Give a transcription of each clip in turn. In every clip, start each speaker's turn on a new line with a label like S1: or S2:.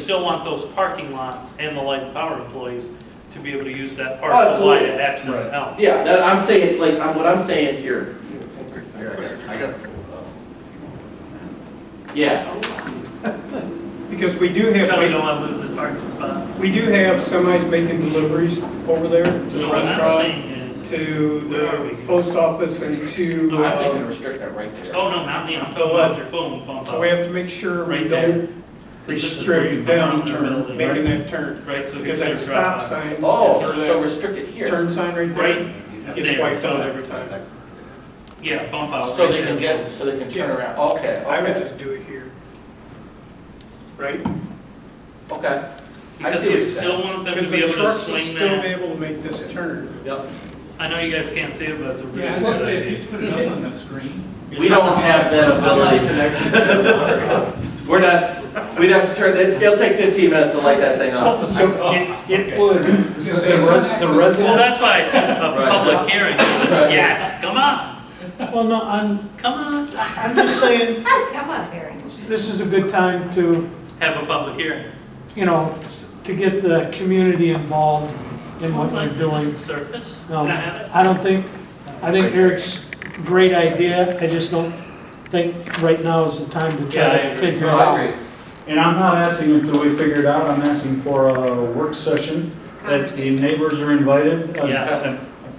S1: still want those parking lots and the light and power employees to be able to use that park to
S2: Absolutely.
S1: light and access
S3: Right.
S1: out.
S2: Yeah, that, I'm saying, like, I'm, what I'm saying here,
S4: Here, I got- I got,
S2: yeah,
S3: Because we do
S1: Tell me you don't
S3: have,
S1: want to lose this parking spot.
S3: we do have semis making deliveries over there to the
S1: No, what I'm
S3: restaurant,
S1: saying is,
S3: to
S1: Where are we?
S3: the post office and to,
S1: No,
S2: I'm thinking
S3: uh,
S2: restrict that right there.
S1: oh, no, not me, I'm
S3: The
S1: talking
S3: left.
S1: about your boom, bump
S3: so we
S1: out.
S3: have to make sure we
S1: Right there.
S3: don't
S1: This is where you
S3: restrict
S1: come around
S3: down
S1: the
S3: turn,
S1: building,
S3: making
S1: right?
S3: that turn.
S1: Right, so
S3: Because that
S1: here's your
S3: stop
S1: drop-off.
S3: sign.
S2: Oh,
S3: or
S2: so
S3: that
S2: restrict it here,
S3: Turn sign right
S1: Right,
S3: there gets
S1: there.
S3: wiped out every time.
S1: yeah, bump out.
S2: so
S1: right
S2: they can
S1: there.
S2: get, so they can turn around, okay,
S3: I would
S2: okay,
S3: just do it here. Right?
S2: okay. I
S1: Because
S2: see what
S1: you
S2: you're
S1: still
S2: sayll
S1: want them to
S3: Because
S1: be
S3: the
S1: able to
S3: trucks will
S1: swing
S3: still be
S1: that.
S3: able to make this turn.
S2: Yep.
S1: I know you guys can't see it, but it's a really
S3: Yeah,
S1: good
S3: plus they-
S1: idea.
S5: Put it up on the screen.
S2: We don't have that ability. connection. We're not, we'd have to turn, it'll take 15 minutes to light that thing up.
S5: It would.
S3: Because the res- the residents.
S1: Oh, Well, that's why I think a
S2: Right.
S1: public hearing,
S2: Right.
S1: yes, come on,
S5: Well, no, I'm,
S1: come on,
S5: I'm just saying,
S6: Come on, Barry.
S5: this is a good time to,
S1: have a public hearing.
S5: you know, s- to get the community involved in what
S1: Like,
S5: you're
S1: is
S5: doing.
S1: this a Surface,
S5: No,
S1: can I have it?
S5: I don't think, I think Eric's great idea, I just don't think right now is the time to
S1: Yeah, I
S5: try to
S1: agree.
S5: figure it
S2: No, I
S5: out.
S2: agree.
S7: And I'm not asking until we figure it out, I'm asking for a work session that the neighbors are invited. uh,
S1: Yes.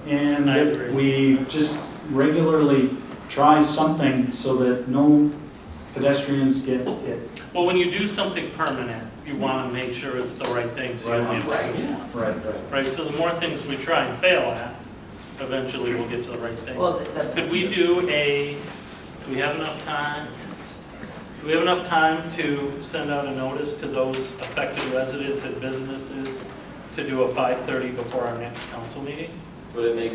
S7: And
S1: I
S7: that
S1: agree.
S7: we just regularly try something so that no pedestrians get hit.
S1: Well, when you do something permanent, you want to make sure it's the right thing, so you
S7: Right.
S1: don't get
S2: Right.
S1: it.
S7: Right.
S1: Right, so the more things we try and fail at, eventually we'll get to the right thing.
S8: Well, the-
S1: Could we do a, do we have enough time? Do we have enough time to send out a notice to those affected residents and businesses to do a 5:30 before our next council meeting?
S2: Would it make,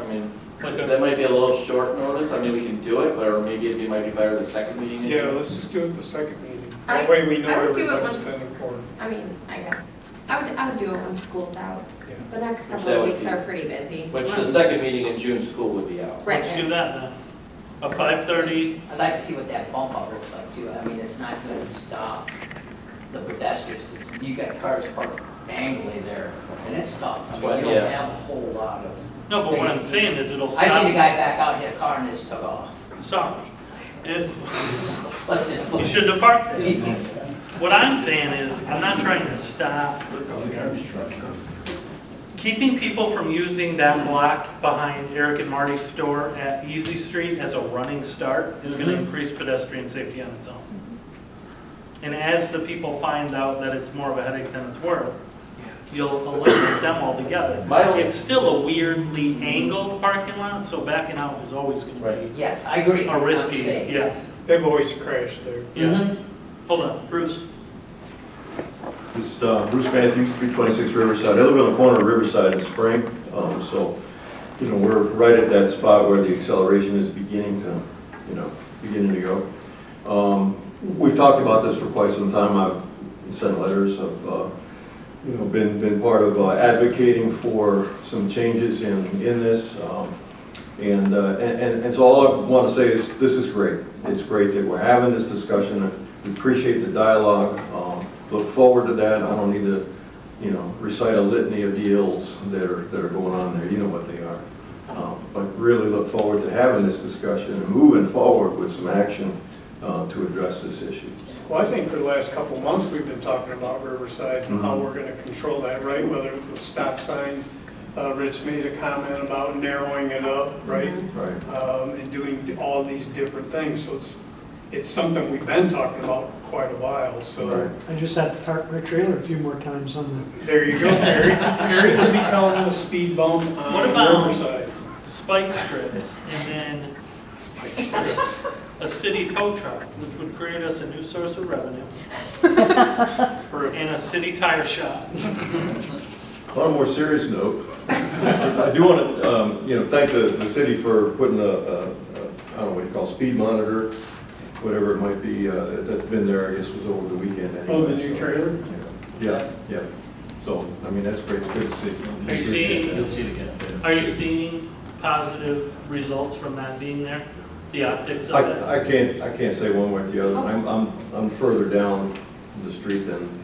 S2: I mean,
S1: Like a-
S2: that might be a little short notice, I mean, we can do it, but or maybe it might be better the second meeting.
S3: Yeah, let's just do it the second meeting.
S6: I-
S3: That way we know
S6: I would do it
S3: everybody's
S6: once-
S3: been informed.
S6: I mean, I guess, I would, I would do it when school's out.
S3: Yeah.
S6: The next couple
S2: That
S6: of
S2: would
S6: weeks
S2: be-
S6: are pretty busy.
S2: Which the second meeting in June, school would be out.
S6: Right.
S1: Let's do that then. A 5:30,
S8: I'd like to see what that bump out looks like too. I mean, it's not gonna stop the pedestrians, 'cause you got cars parked angly there, and it's tough. I mean,
S2: Well,
S8: you don't
S2: yeah.
S8: have a whole lot of.
S1: no, but what I'm
S8: space.
S1: saying is it'll
S8: I seen a
S1: stop,
S8: guy back out, hit a car and just took off.
S1: sorry. It-
S8: Listen,
S1: You shouldn't have parked there.
S8: Well,
S1: What I'm saying is, I'm not trying to stop keeping people from using that block behind Eric and Marty's store at Easy Street as a running start is gonna
S2: Mhm.
S1: increase pedestrian safety on its own. And as the people find out that it's more of a headache than it's worth, you'll eliminate them altogether.
S2: My only-
S1: It's still a weirdly angled parking lot, so backing out is always gonna
S2: Right.
S1: be.
S8: Yes, I agree.
S1: Are risky,
S8: I'm saying,
S1: yes.
S3: They've always crashed there.
S1: Yeah. Hold on, Bruce.
S9: This uh, Bruce Matthews, 326 Riverside. I live on the corner of Riverside and Spring, um, so, you know, we're right at that spot where the acceleration is beginning to, you know, beginning to go. Um, We've talked about this for quite some time. I've sent letters, I've, uh, you know, been, been part of uh, advocating for some changes in, in this. um, And, uh, and, and- and so all I want to say is, this is great. It's great that we're having this discussion. We appreciate the dialogue, um, look forward to that. I don't need to, you know, recite a litany of the ills that are, that are going on there. You know what they are. Um, But really look forward to having this discussion and moving forward with some action uh, to address this issue.
S3: Well, I think for the last couple of months, we've been talking about Riverside and how
S9: Mhm.
S3: we're going to control that, right? Whether it was stop signs, uh, Rich made a comment about narrowing it up, right?
S9: Right.
S3: Um, And doing all these different things, so it's, it's something we've been talking about for quite a while, so
S9: Right.
S5: I just have to park my trailer a few more times on the
S3: there you go, Harry. Harry will be calling it a speed bump
S1: What
S3: on
S1: about-
S3: Riverside.
S1: spike strips and then a city tow truck, which would create us a new source of revenue,
S3: For a-
S1: and a city tire shop.
S9: uh, On a more serious note, I do want to, you know, thank the, the city for putting a, a- a- I don't know what you call, it, speed monitor, whatever it might be, uh, that's been there, I guess, was over the weekend anyway.
S3: Oh, the new
S9: so,
S3: trailer?
S9: yeah. Yeah, yeah. So, I mean, that's great, it's good to see.
S1: Are you seeing-
S4: You'll see it again.
S1: Are you seeing positive results from that being there? The optics of it?
S9: I, I can't, I can't say one way or the other. I'm, I'm, I'm further down the street than